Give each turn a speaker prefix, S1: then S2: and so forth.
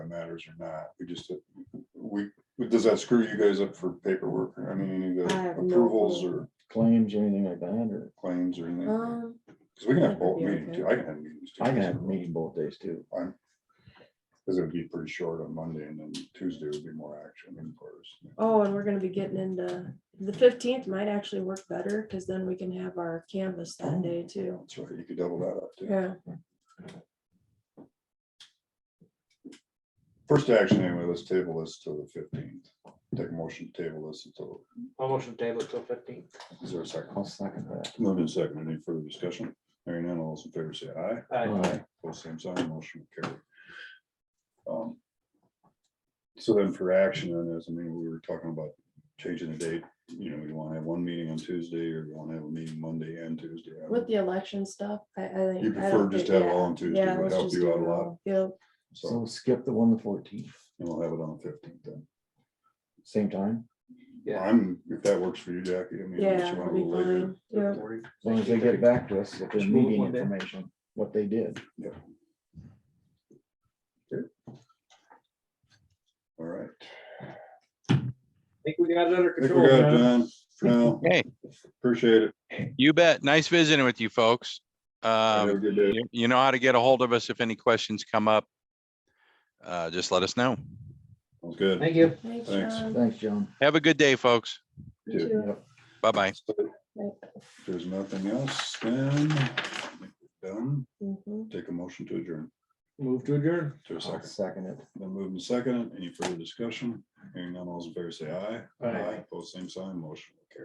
S1: matters or not, we just, we, does that screw you guys up for paperwork, or I mean, any of
S2: I
S1: the
S2: have no
S1: approvals
S2: clue.
S1: or
S3: claims or anything like that, or
S1: claims or anything? Cause
S2: Um,
S1: we can have
S2: that
S1: both
S2: would be
S1: meetings,
S2: okay.
S1: too, I can have meetings. too.
S3: I can have a meeting both days too.
S1: Cause it'd be pretty short on Monday, and then Tuesday would be more action, of course.
S2: oh, and we're gonna be getting into, the fifteenth might actually work better, cause then we can have our canvas
S1: Oh.
S2: that day too.
S1: That's right, you could double that up, too.
S2: Yeah,
S1: First action, anyway, let's table this till the fifteenth, take a motion to table this until,
S4: I'll motion table till fifteen.
S1: is there a second?
S3: I'll second that.
S1: Moved and seconded. Any further discussion? Hearing none, all those in favor say aye.
S3: Aye.
S1: Both same sign, motion will carry. Um, So then for action on this, I mean, we were talking about changing the date. You know, you want to have one meeting on Tuesday or you want to have a meeting Monday and Tuesday. I
S2: with
S1: don't-
S2: the election stuff, I, I think.
S1: You
S2: I
S1: prefer
S2: don't
S1: just to
S2: think-
S1: have it all
S2: yeah.
S1: on Tuesday
S2: Yeah,
S1: would
S2: let's
S1: help
S2: just do
S1: you out a
S2: it
S1: lot.
S2: all. Yeah,
S1: So
S3: So skip the one the fourteenth,
S1: and we'll have it on the fifteenth then.
S3: same time,
S4: Yeah.
S1: I'm, if that works for you, Jackie, I mean,
S2: yeah,
S1: unless you want
S2: it'll
S1: to
S2: be
S1: later.
S2: fine, yeah.
S3: as long as they get back to us with their
S4: Just move
S3: meeting
S4: one day.
S3: information, what they did.
S1: All right.
S4: Think we got it under
S1: I think
S4: control.
S1: we got it
S4: John.
S1: done for now.
S5: Hey.
S1: Appreciate it.
S5: You bet. Nice visiting with you folks.
S1: Have a
S5: Um,
S1: good day.
S5: you you know how to get a hold of us if any questions come up. Uh, just let us know.
S1: Sounds good.
S4: Thank you.
S2: Thanks,
S1: Thanks.
S2: John.
S3: Thanks, John.
S5: Have a good day, folks.
S2: You
S1: Dude.
S2: too.
S3: Yep.
S5: Bye bye.
S2: Right.
S1: If there's nothing else, then I think we're done.
S2: Mhm.
S1: Take a motion to adjourn.
S4: Move to adjourn.
S1: To a
S3: I'll
S1: second.
S3: second it.
S1: Then moving second, any further discussion? Hearing none, all's in favor, say aye.
S4: Aye.
S1: Both same sign, motion